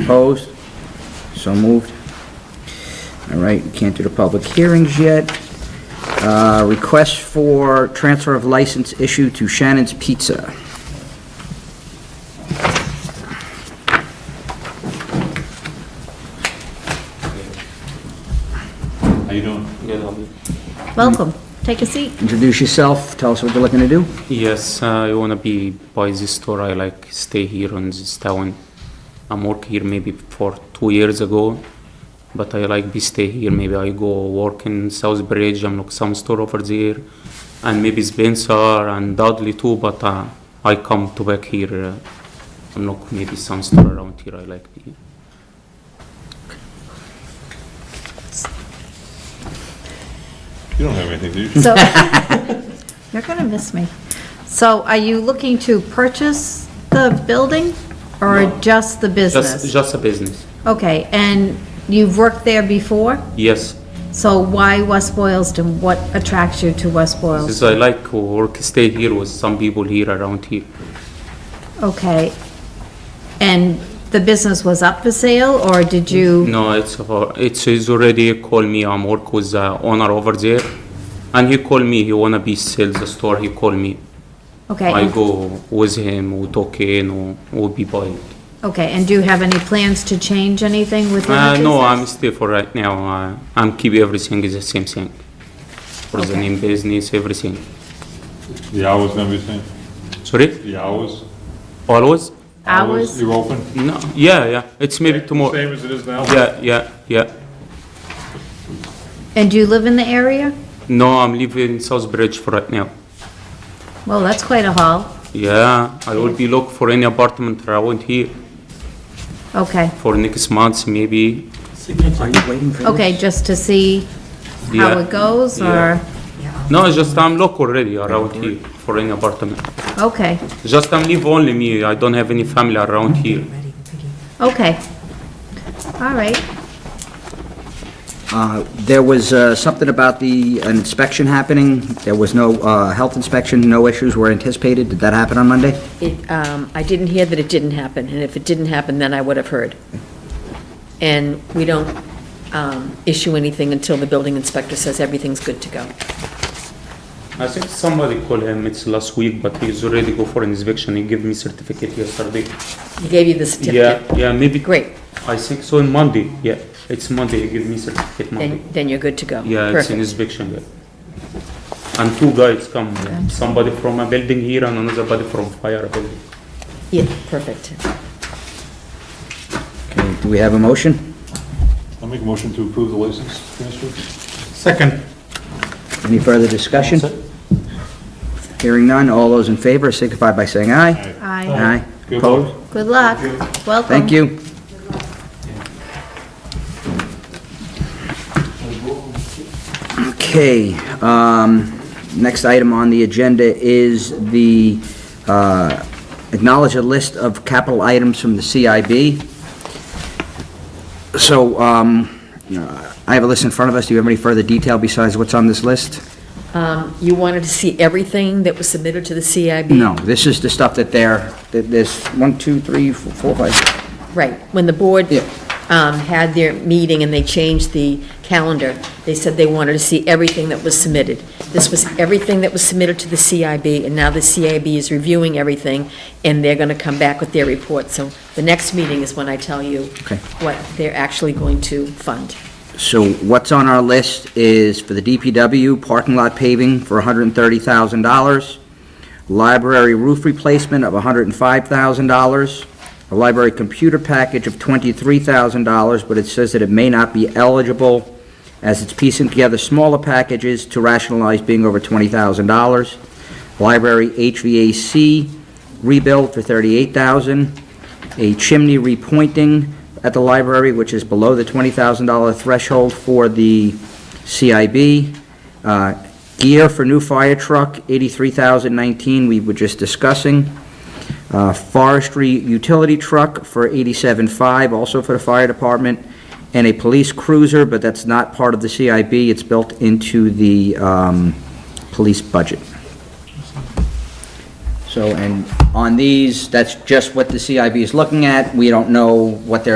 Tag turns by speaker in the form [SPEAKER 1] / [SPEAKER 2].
[SPEAKER 1] Opposed? So moved. All right, we can't do the public hearings yet. Uh, Request for transfer of license issue to Shannon's Pizza.
[SPEAKER 2] How you doing? Good,
[SPEAKER 3] Welcome. Take a seat.
[SPEAKER 1] Introduce yourself, tell us what you're looking to do.
[SPEAKER 2] Yes, uh, I wanna be by this store. I like stay here on this town. I'm work here maybe for two years ago, but I like be stay here. Maybe I go work in Southbridge. I'm look some store over there, and maybe Spencer and Dudley too. But uh, I come to back here. Uh, I'm look maybe some store around here. I like be.
[SPEAKER 4] You don't have anything, do you?
[SPEAKER 3] So, you're going to miss me. So are you looking to purchase the building or
[SPEAKER 2] No.
[SPEAKER 3] just the
[SPEAKER 2] Just
[SPEAKER 3] business?
[SPEAKER 2] just a business.
[SPEAKER 3] Okay, and you've worked there before?
[SPEAKER 2] Yes.
[SPEAKER 3] So why West Boylston? What attracts you to West Boylston?
[SPEAKER 2] Since I like work, stay here with some people here around here.
[SPEAKER 3] Okay. And the business was up for sale or did you?
[SPEAKER 2] No, it's for, it's, he's already called me, I'm work with the owner over there, and he called me, he wanna be sell the store, he called me.
[SPEAKER 3] Okay,
[SPEAKER 2] I
[SPEAKER 3] and-
[SPEAKER 2] go with him, we talk in, we be buying.
[SPEAKER 3] okay, and do you have any plans to change anything within the
[SPEAKER 2] Uh,
[SPEAKER 3] business?
[SPEAKER 2] no, I'm stay for right now, uh, I'm keep everything is the same thing. For the
[SPEAKER 3] Okay.
[SPEAKER 2] name business, everything.
[SPEAKER 4] The hours and everything,
[SPEAKER 2] Sorry,
[SPEAKER 4] the hours?
[SPEAKER 2] always?
[SPEAKER 3] Hours?
[SPEAKER 4] You're open?
[SPEAKER 2] No, yeah, yeah, it's maybe tomorrow,
[SPEAKER 4] Same as it is now?
[SPEAKER 2] yeah, yeah, yeah.
[SPEAKER 3] And do you live in the area?
[SPEAKER 2] No, I'm living in Southbridge for right now.
[SPEAKER 3] Well, that's quite a haul.
[SPEAKER 2] Yeah, I will be look for any apartment around here.
[SPEAKER 3] Okay,
[SPEAKER 2] for next month, maybe.
[SPEAKER 1] Are you waiting for this?
[SPEAKER 3] okay, just to see how
[SPEAKER 2] Yeah.
[SPEAKER 3] it goes, or,
[SPEAKER 2] Yeah. No, it's just I'm locked already around here for any apartment.
[SPEAKER 3] okay,
[SPEAKER 2] Just I'm live only me, I don't have any family around here.
[SPEAKER 3] okay. All right,
[SPEAKER 1] Uh, There was uh, something about the an inspection happening. There was no uh, health inspection, no issues were anticipated. Did that happen on Monday?
[SPEAKER 5] It, um, I didn't hear that it didn't happen, and if it didn't happen, then I would have heard. And we don't um, issue anything until the building inspector says everything's good to go.
[SPEAKER 2] I think somebody called him, it's last week, but he's already go for inspection, he gave me certificate yesterday.
[SPEAKER 5] He gave you the
[SPEAKER 2] Yeah,
[SPEAKER 5] certificate.
[SPEAKER 2] yeah, maybe.
[SPEAKER 5] Great,
[SPEAKER 2] I think so on Monday, yeah, it's Monday, he gave me certificate Monday.
[SPEAKER 5] then, then you're good to go.
[SPEAKER 2] Mm-hmm. Yeah, it's an
[SPEAKER 5] Perfect.
[SPEAKER 2] inspection, yeah. And two guys come, somebody from a building here and another body from fire building.
[SPEAKER 5] Yeah, perfect.
[SPEAKER 1] Okay, Do we have a motion?
[SPEAKER 4] I'll make a motion to approve the license transfer.
[SPEAKER 2] Second.
[SPEAKER 1] Any further discussion? Hearing none, all those in favor signify by saying aye.
[SPEAKER 3] aye,
[SPEAKER 1] Aye.
[SPEAKER 4] Good
[SPEAKER 1] Opposed?
[SPEAKER 4] luck.
[SPEAKER 3] good luck, welcome.
[SPEAKER 1] Thank you. Okay, um, next item on the agenda is the, uh, acknowledge a list of capital items from the CIB. So, um, uh, I have a list in front of us. Do you have any further detail besides what's on this list?
[SPEAKER 5] Um, You wanted to see everything that was submitted to the CIB?
[SPEAKER 1] No, this is the stuff that they're, that there's one, two, three, four, four, five.
[SPEAKER 5] Right, when the board
[SPEAKER 1] Yeah.
[SPEAKER 5] um, had their meeting and they changed the calendar, they said they wanted to see everything that was submitted. This was everything that was submitted to the CIB, and now the CIB is reviewing everything, and they're going to come back with their report. So the next meeting is when I tell you
[SPEAKER 1] Okay.
[SPEAKER 5] what they're actually going to fund.
[SPEAKER 1] So what's on our list is for the DPW, parking lot paving for $130,000, library roof replacement of $105,000, a library computer package of $23,000, but it says that it may not be eligible as it's piecing together smaller packages to rationalize being over $20,000, library HVAC rebuild for $38,000, a chimney repointing at the library, which is below the $20,000 threshold for the CIB. Uh, Gear for new fire truck, $83,019, we were just discussing. Uh, Forestry utility truck for $87,500, also for the fire department. And a police cruiser, but that's not part of the CIB, it's built into the um, police budget. So, and on these, that's just what the CIB is looking at. We don't know what they're